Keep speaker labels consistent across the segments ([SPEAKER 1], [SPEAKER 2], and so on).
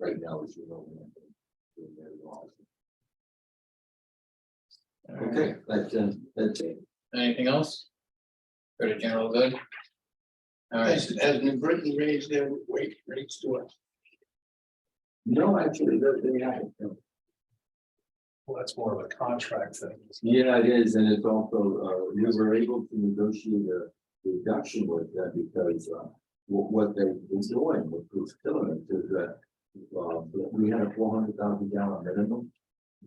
[SPEAKER 1] right now is your own. doing their laws. Okay, that's, uh, that's it.
[SPEAKER 2] Anything else? Pretty general good. All right,
[SPEAKER 3] Has, has New Britain raised their wage rates to us?
[SPEAKER 1] No, actually, they they haven't. no.
[SPEAKER 4] Well, that's more of a contract thing.
[SPEAKER 1] Yeah, it is, and it's also, uh, we were able to negotiate a reduction with them because, uh, what, what they was doing, what was killing us is that. Uh, we had a four hundred thousand gallon minimum.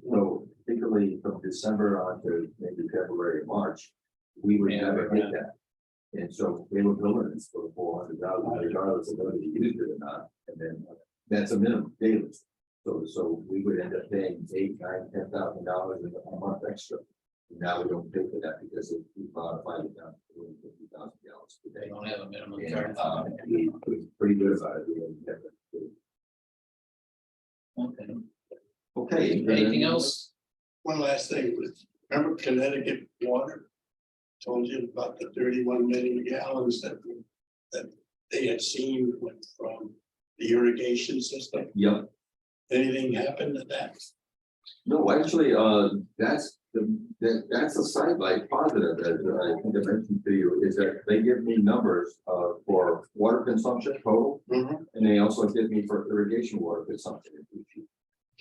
[SPEAKER 1] So particularly from December on to maybe February, March, we would
[SPEAKER 2] Yeah,
[SPEAKER 1] never
[SPEAKER 2] yeah.
[SPEAKER 1] hit that. And so they were billing us for four hundred thousand regardless of whether you used it or not, and then uh, that's a minimum daily. So, so we would end up paying eight, nine, ten thousand dollars a month extra. Now we don't pay for that because it- we modified it down to fifty thousand gallons per
[SPEAKER 2] they
[SPEAKER 1] day.
[SPEAKER 2] don't have a minimum
[SPEAKER 1] And,
[SPEAKER 2] term.
[SPEAKER 1] uh, we, we're pretty good about it. We don't have it.
[SPEAKER 2] Okay.
[SPEAKER 1] Okay.
[SPEAKER 2] Anything else?
[SPEAKER 3] One last thing was, remember Connecticut water? Told you about the thirty-one million gallons that, we- that they had seen went from the irrigation system.
[SPEAKER 1] Yep.
[SPEAKER 3] Anything happened to that?
[SPEAKER 1] No, actually, uh, that's the, that, that's a sidelight positive that I think I mentioned to you, is that they give me numbers, uh, for water consumption total.
[SPEAKER 3] Mhm.
[SPEAKER 1] And they also give me for irrigation water consumption.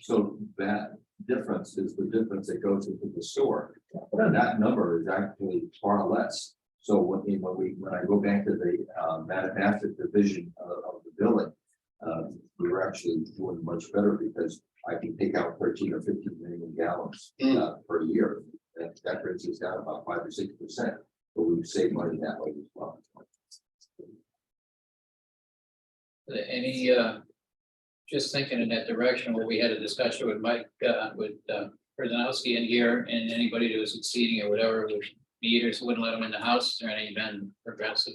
[SPEAKER 1] So that difference is the difference that goes into the sewer. And that number is actually far less. So when, we- when we, when I go back to the, uh, Madagascar division of, of the billing, uh, we were actually doing much better because I can take out thirteen or fifteen million gallons
[SPEAKER 3] Mm.
[SPEAKER 1] uh, per year. That, that brings us down about five or six percent, but we would save money that way as well.
[SPEAKER 2] Any, uh, just thinking in that direction where we had a discussion with Mike, uh, with, uh, Prisonowski in here and anybody who was succeeding or whatever, with meters wouldn't let them in the house or any been progressive.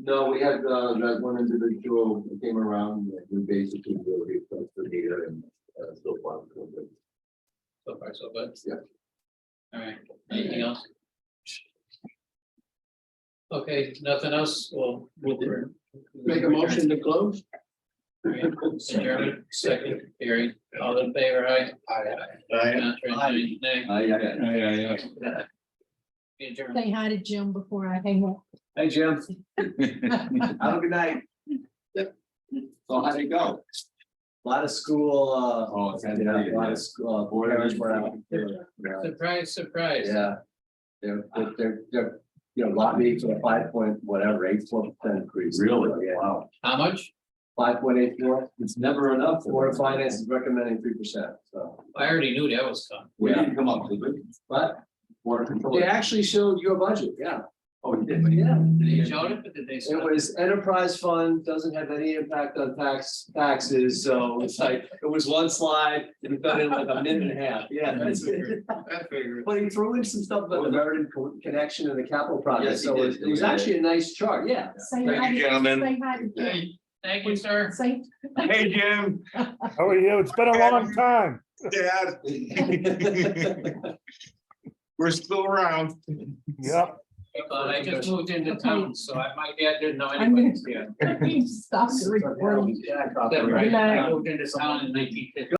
[SPEAKER 1] No, we had, uh, that one individual who came around, and we basically were replaced the meter and, uh, so far. so good.
[SPEAKER 2] So far, so good.
[SPEAKER 1] Yeah.
[SPEAKER 2] All right, anything else? Okay, nothing else, well. we'll-
[SPEAKER 3] Make a motion to close?
[SPEAKER 2] Chairman, second, Gary, all in favor, aye?
[SPEAKER 3] Aye.
[SPEAKER 2] Contrary, nay?
[SPEAKER 1] Aye, aye, aye.
[SPEAKER 2] Be adjourned.
[SPEAKER 5] Say hi to Jim before I hang up.
[SPEAKER 1] Hey, Jim. Have a good night. So how'd it go?
[SPEAKER 6] A Lot of school, uh,
[SPEAKER 1] Oh, it's
[SPEAKER 6] a lot of school, uh, board members were out.
[SPEAKER 2] Surprise, surprise.
[SPEAKER 6] Yeah. They're, they're- they're, they're, you know, lobbying for a five point, whatever, eight four percent increase.
[SPEAKER 1] Really?
[SPEAKER 6] Yeah,
[SPEAKER 1] Wow.
[SPEAKER 2] How much?
[SPEAKER 6] five point eight four,
[SPEAKER 1] It's never enough.
[SPEAKER 6] Board of Finance is recommending three percent, so.
[SPEAKER 2] I already knew that was coming.
[SPEAKER 1] We didn't come up with it.
[SPEAKER 6] But
[SPEAKER 1] Water control.
[SPEAKER 6] they actually showed your budget, yeah.
[SPEAKER 1] Oh, we did.
[SPEAKER 6] Yeah.
[SPEAKER 2] Did you show it, but did they?
[SPEAKER 6] It was enterprise fund, doesn't have any impact on tax, taxes, so it's like, it was one slide, and we got in like a minute and a half, yeah. that's it. But he threw in some stuff about the Meriden co- connection and the capital project,
[SPEAKER 1] Yes, he
[SPEAKER 6] so it
[SPEAKER 1] did.
[SPEAKER 6] it was actually a nice chart, yeah.
[SPEAKER 5] Say hi to-
[SPEAKER 3] gentlemen.
[SPEAKER 5] Say hi to Jim.
[SPEAKER 2] Thank you, sir.
[SPEAKER 5] Say
[SPEAKER 3] Hey, Jim.
[SPEAKER 7] How are you? It's been a long time.
[SPEAKER 3] Yeah, we're still around.
[SPEAKER 7] Yep.
[SPEAKER 2] But Uh, I just moved into town, so I might get, didn't know
[SPEAKER 5] I'm
[SPEAKER 2] anybody.
[SPEAKER 5] gonna stop the recording.
[SPEAKER 6] Yeah, I thought-
[SPEAKER 2] That right,
[SPEAKER 5] Yeah.
[SPEAKER 2] I moved into town in nineteen fifty.